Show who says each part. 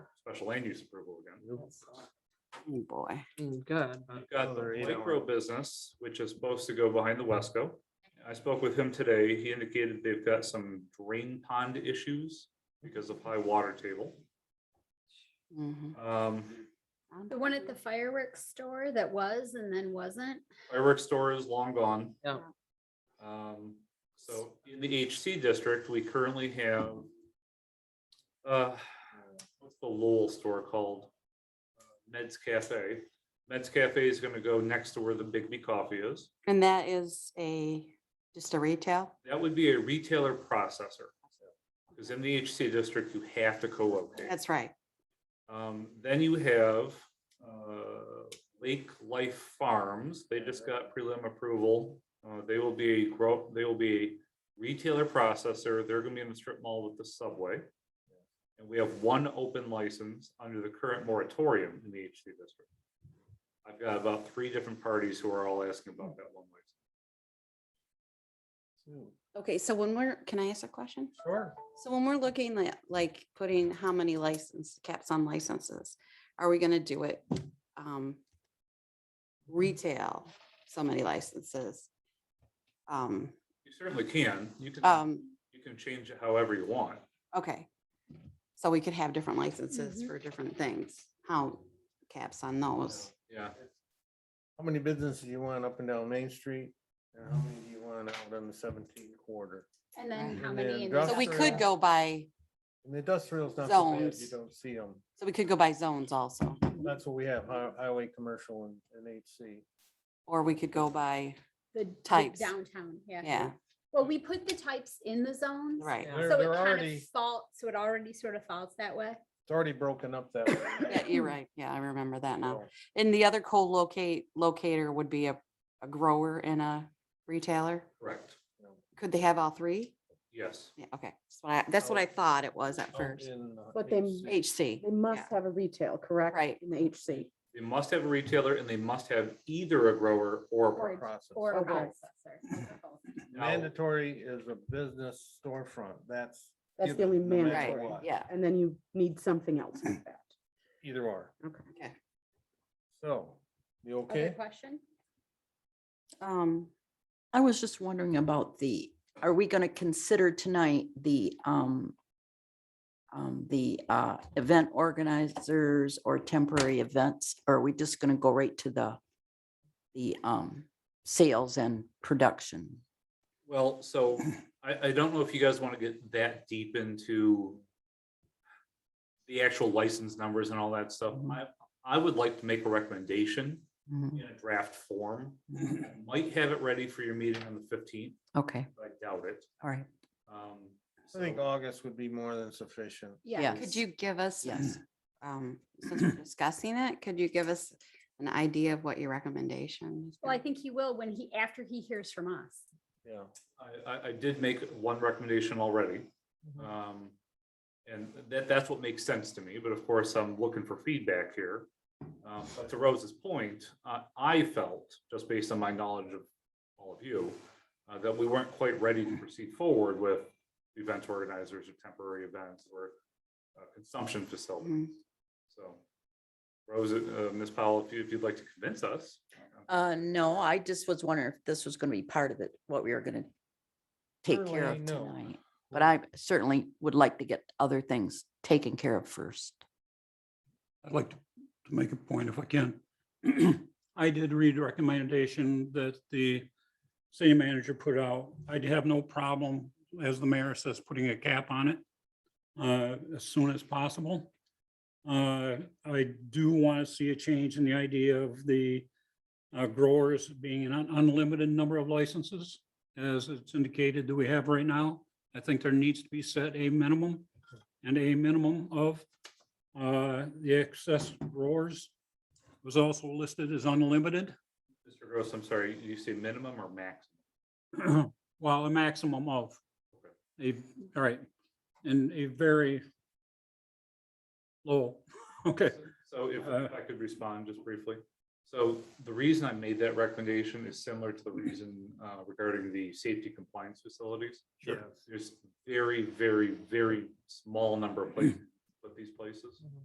Speaker 1: special land use approval again.
Speaker 2: Oh, boy.
Speaker 3: Good, but
Speaker 1: We've got
Speaker 4: Another
Speaker 1: the
Speaker 4: eight
Speaker 1: micro
Speaker 4: hour.
Speaker 1: business, which is supposed to go behind the Wesco. I spoke with him today. He indicated they've got some drain pond issues because of high water table.
Speaker 2: Mhm.
Speaker 1: Um,
Speaker 5: The one at the fireworks store that was and then wasn't.
Speaker 1: fireworks store is long gone.
Speaker 3: Yeah.
Speaker 1: Um, so in the HC district, we currently have, uh, what's the Lowell store called? Uh, Meds Cafe. Meds Cafe is gonna go next to where the Bigby Coffee is.
Speaker 2: And that is a, just a retail?
Speaker 1: That would be a retailer processor. Because in the HC district, you have to co-locate.
Speaker 2: That's right.
Speaker 1: Um, then you have, uh, Lake Life Farms. They just got prelim approval. Uh, they will be a grow, they will be a retailer processor. They're gonna be in the strip mall with the subway. And we have one open license under the current moratorium in the HC district. I've got about three different parties who are all asking about that one license.
Speaker 2: Okay, so when we're, can I ask a question?
Speaker 4: Sure.
Speaker 2: So when we're looking at, like, putting how many license, caps on licenses, are we gonna do it? um Retail, so many licenses. Um,
Speaker 1: You certainly can. You can.
Speaker 2: um,
Speaker 1: You can change it however you want.
Speaker 2: okay. So we could have different licenses for different things. How caps on those?
Speaker 1: Yeah,
Speaker 4: How many businesses you want up and down Main Street? And how many do you want out on the seventeenth quarter?
Speaker 5: And then
Speaker 2: Right.
Speaker 5: how
Speaker 4: And
Speaker 5: many?
Speaker 4: then
Speaker 5: in
Speaker 4: drop-
Speaker 2: So we
Speaker 5: South
Speaker 2: could
Speaker 5: Row?
Speaker 2: go by,
Speaker 4: And the industrial's not so bad, you
Speaker 2: Zones.
Speaker 4: don't see them.
Speaker 2: so we could go by zones also,
Speaker 4: That's what we have, hi- highway, commercial and, and HC.
Speaker 2: or we could go by,
Speaker 5: The the
Speaker 2: types.
Speaker 5: Downtown, yeah.
Speaker 2: yeah,
Speaker 5: Well, we put the types in the zones.
Speaker 2: right.
Speaker 3: Yeah.
Speaker 4: They're,
Speaker 5: So it
Speaker 4: they're
Speaker 5: kind
Speaker 4: already,
Speaker 5: of falls, so it already sort of falls that way.
Speaker 4: it's already broken up that. way.
Speaker 2: Yeah, you're right. Yeah, I remember that now.
Speaker 4: So,
Speaker 2: And the other co-locate locator would be a, a grower and a retailer?
Speaker 1: correct.
Speaker 2: Could they have all three?
Speaker 1: Yes.
Speaker 2: Yeah, okay. That's what I, that's what I thought it was at
Speaker 4: out
Speaker 2: first.
Speaker 4: in, uh,
Speaker 6: But they-
Speaker 4: HC.
Speaker 2: HC.
Speaker 6: They must
Speaker 2: yeah,
Speaker 6: have a retail, correct?
Speaker 2: Right.
Speaker 6: In the HC.
Speaker 1: They must have a retailer and they must have either a grower or a
Speaker 5: Or-
Speaker 1: processor.
Speaker 4: Process.
Speaker 5: Or a
Speaker 2: Oh,
Speaker 6: Okay.
Speaker 5: processor.
Speaker 1: Now,
Speaker 4: Mandatory is a business storefront, that's.
Speaker 6: That's the
Speaker 4: either,
Speaker 6: only
Speaker 4: no matter
Speaker 6: mandatory.
Speaker 4: what,
Speaker 2: Yeah.
Speaker 6: And then you need something else like that.
Speaker 4: Either or,
Speaker 2: Okay.
Speaker 4: so, you
Speaker 5: Other
Speaker 4: okay?
Speaker 5: question?
Speaker 2: Um,
Speaker 7: I was just wondering about the, are we gonna consider tonight the, um, um, the, uh, event organizers or temporary events? Or are we just gonna go right to the, the, um, sales and production?
Speaker 1: Well, so I, I don't know if you guys want to get that deep into the actual license numbers and all that stuff. I, I would like to make a recommendation
Speaker 7: Mhm.
Speaker 1: in a draft form. Might have it ready for your meeting on the fifteenth,
Speaker 7: Okay,
Speaker 1: but I doubt it.
Speaker 7: all right.
Speaker 1: Um,
Speaker 4: I think
Speaker 1: so-
Speaker 4: August would be more than sufficient.
Speaker 5: Yeah.
Speaker 2: could
Speaker 7: Yes.
Speaker 2: you give us,
Speaker 7: Yes.
Speaker 2: um, since we're discussing it, could you give us an idea of what your recommendation? is
Speaker 5: Well, I
Speaker 2: gonna-
Speaker 5: think he will when he, after he hears from us.
Speaker 4: Yeah.
Speaker 1: I, I, I did make one recommendation already. Um, and that, that's what makes sense to me, but of course, I'm looking for feedback here. Um, but to Rose's point, uh, I felt, just based on my knowledge of all of you, uh, that we weren't quite ready to proceed forward with event organizers or temporary events or uh, consumption facilities. So Rose, uh, Ms. Powell, if you, if you'd like to convince us.
Speaker 7: Uh, no, I just was wondering if this was gonna be part of it, what we were gonna take care
Speaker 4: Currently,
Speaker 7: of
Speaker 4: no.
Speaker 7: tonight. But I certainly would like to get other things taken care of first.
Speaker 8: I'd like to to make a point if I can. I did read the recommendation that the city manager put out. I'd have no problem, as the mayor says, putting a cap on it uh, as soon as possible. Uh, I do want to see a change in the idea of the uh, growers being an unlimited number of licenses, as it's indicated that we have right now. I think there needs to be set a minimum and a minimum of uh, the excess growers was also listed as unlimited,
Speaker 1: Mr. Gross, I'm sorry, you say minimum or maximum?
Speaker 8: while a maximum of
Speaker 1: Okay.
Speaker 8: a, all right, and a very low, okay,
Speaker 1: So if
Speaker 8: Uh,
Speaker 1: I could respond just briefly. So the reason I made that recommendation is similar to the reason uh, regarding the safety compliance facilities.
Speaker 4: Sure.
Speaker 1: There's very, very, very small number of places, put these places.